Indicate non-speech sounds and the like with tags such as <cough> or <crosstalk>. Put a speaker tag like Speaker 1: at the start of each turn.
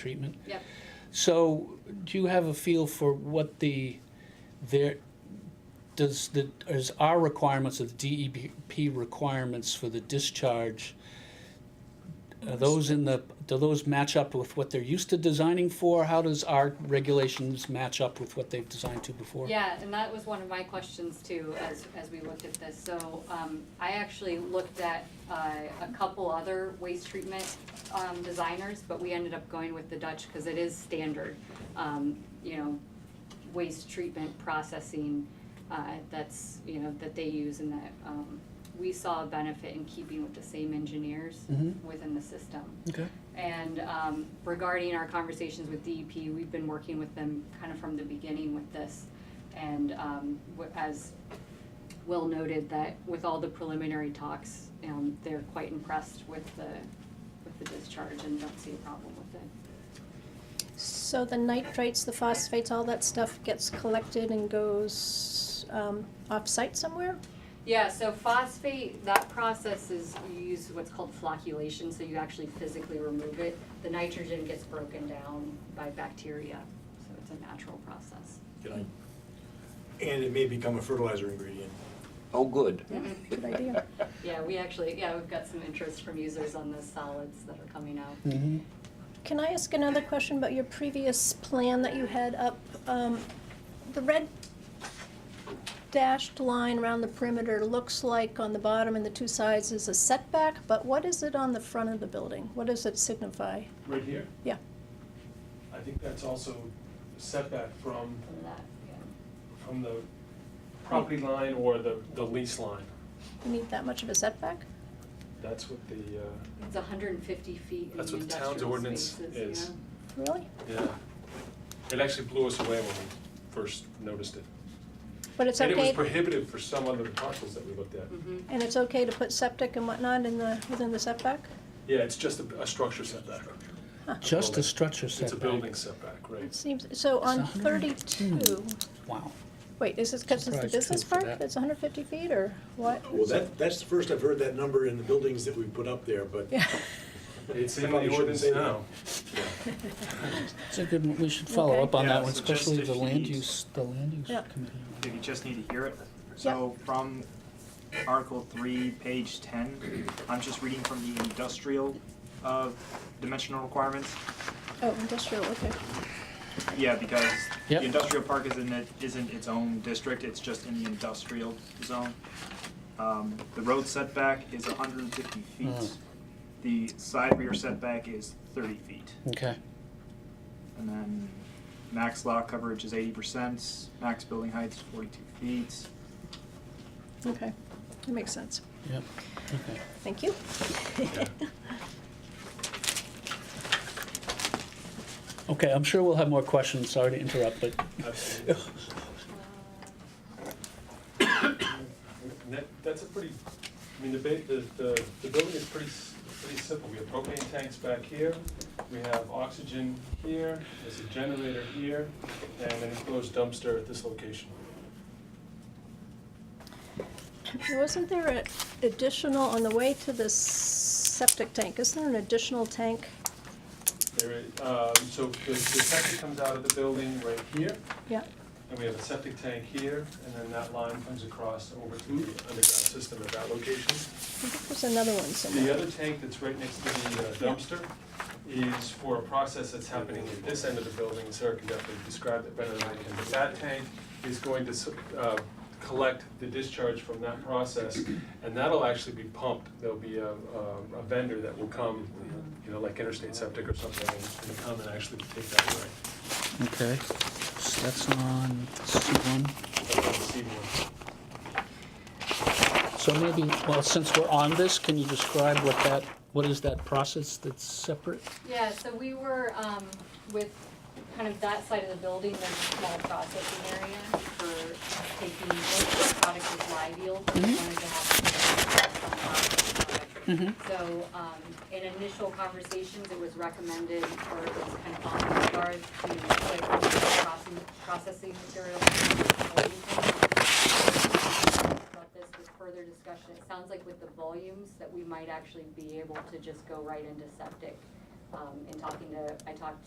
Speaker 1: treatment.
Speaker 2: Yep.
Speaker 1: So, do you have a feel for what the, there, does the, is our requirements of the DEP requirements for the discharge, are those in the, do those match up with what they're used to designing for? How does our regulations match up with what they've designed to before?
Speaker 2: Yeah, and that was one of my questions too, as, as we looked at this. So, um, I actually looked at, uh, a couple other waste treatment, um, designers, but we ended up going with the Dutch because it is standard. Um, you know, waste treatment processing, uh, that's, you know, that they use and that, um, we saw a benefit in keeping with the same engineers
Speaker 1: Mhm.
Speaker 2: within the system.
Speaker 1: Okay.
Speaker 2: And um, regarding our conversations with DEP, we've been working with them kind of from the beginning with this. And um, wh- as Will noted, that with all the preliminary talks, um, they're quite impressed with the, with the discharge and don't see a problem with it.
Speaker 3: So the nitrates, the phosphates, all that stuff gets collected and goes um, off-site somewhere?
Speaker 2: Yeah, so phosphate, that process is, you use what's called flocculation, so you actually physically remove it. The nitrogen gets broken down by bacteria, so it's a natural process.
Speaker 4: Can I? And it may become a fertilizer ingredient.
Speaker 5: Oh, good.
Speaker 3: Good
Speaker 6: <laughs>
Speaker 3: idea.
Speaker 2: Yeah, we actually, yeah, we've got some interest from users on the solids that are coming out.
Speaker 1: Mm-hmm.
Speaker 3: Can I ask another question about your previous plan that you had up? Um, The red dashed line around the perimeter looks like on the bottom and the two sides is a setback, but what is it on the front of the building? What does it signify?
Speaker 6: Right here?
Speaker 3: Yeah.
Speaker 6: I think that's also setback from,
Speaker 2: From that, yeah.
Speaker 6: from the property line or the, the lease line.
Speaker 3: You need that much of a setback?
Speaker 6: That's what the, uh,
Speaker 2: It's hundred and fifty feet in
Speaker 6: That's
Speaker 2: the
Speaker 6: what the town's
Speaker 2: industrial
Speaker 6: ordinance
Speaker 2: spaces,
Speaker 6: is.
Speaker 2: yeah.
Speaker 3: Really?
Speaker 6: yeah. It actually blew us away when we first noticed it.
Speaker 3: But it's
Speaker 6: And it was
Speaker 3: okay, Mm.
Speaker 6: prohibitive for some other parcels that we looked at.
Speaker 2: Mhm.
Speaker 3: and it's okay to put septic and whatnot in the, within the setback?
Speaker 6: Yeah, it's just a, a structure setback.
Speaker 1: Just a
Speaker 6: Building.
Speaker 1: structure
Speaker 6: It's a
Speaker 1: setback.
Speaker 6: building setback,
Speaker 3: It
Speaker 6: right?
Speaker 3: seems, so on
Speaker 1: It's 102.
Speaker 3: thirty-two,
Speaker 1: Wow.
Speaker 3: wait, is this because it's the
Speaker 1: Surprised too
Speaker 3: business
Speaker 1: for
Speaker 3: park
Speaker 1: that.
Speaker 3: that's hundred fifty feet, or what?
Speaker 4: Well, that, that's the first I've heard that number in the buildings that we put up there, but
Speaker 3: Yeah, <laughs>
Speaker 6: It's in
Speaker 4: Probably
Speaker 6: the
Speaker 4: shouldn't
Speaker 6: ordinance
Speaker 4: say that.
Speaker 6: now.
Speaker 1: It's a good one. We should follow
Speaker 3: Okay.
Speaker 1: up on
Speaker 7: Yeah,
Speaker 1: that one,
Speaker 7: so just
Speaker 1: especially
Speaker 7: if
Speaker 1: the
Speaker 7: you
Speaker 1: land
Speaker 7: need-
Speaker 1: use, the land use
Speaker 3: Yeah.
Speaker 1: committee.
Speaker 7: If you just need to hear it. So from Article three, page ten, I'm just reading from the industrial uh, dimensional requirements.
Speaker 3: oh, industrial, okay,
Speaker 7: Yeah, because
Speaker 1: Yep.
Speaker 7: the industrial park isn't, it- isn't its own district, it's just in the industrial zone. Um, The road setback is hundred and fifty feet.
Speaker 1: Mm.
Speaker 7: The side rear setback is thirty feet.
Speaker 1: Okay.
Speaker 7: And then max lot coverage is eighty percent, max building height is forty-two feet.
Speaker 3: okay, that makes sense,
Speaker 1: Yep. Okay. <laughs>
Speaker 3: thank you.
Speaker 1: Okay, I'm sure we'll have more questions. Sorry to interrupt, but
Speaker 6: Absolutely. That, that's a pretty, I mean, the ba, the, the, the building is pretty, s- pretty simple. We have propane tanks back here, we have oxygen here, there's a generator here, and an enclosed dumpster at this location.
Speaker 3: Wasn't there an additional, on the way to the septic tank, isn't there an additional tank?
Speaker 6: There is, um, so the, the septic comes out of the building right here,
Speaker 3: Yeah,
Speaker 6: and we have a septic tank here, and then that line comes across over to the underground system at that location.
Speaker 3: I think there's another one
Speaker 6: The
Speaker 3: somewhere,
Speaker 6: other tank that's right next to the uh, dumpster is for a process that's happening at this end of the building, Sarah can definitely describe it better than I can. But that tank is going to s- uh, collect the discharge from that process, and that'll actually be pumped. There'll be a a- a vendor that will come, you know, like Interstate Septic or something, and- and come and actually take that away.
Speaker 1: Okay, so that's on C1. So maybe, well, since we're on this, can you describe what that, what is that process that's separate?
Speaker 2: Yeah, so we were, um, with kind of that side of the building, there's a small processing area for taking most of the product is live yield, but we wanted to have.
Speaker 1: Mhm.
Speaker 2: So, um, in initial conversations, it was recommended, or it was kind of on the guard to like processing, processing material. About this with further discussion, it sounds like with the volumes, that we might actually be able to just go right into septic. Um, and talking to, I talked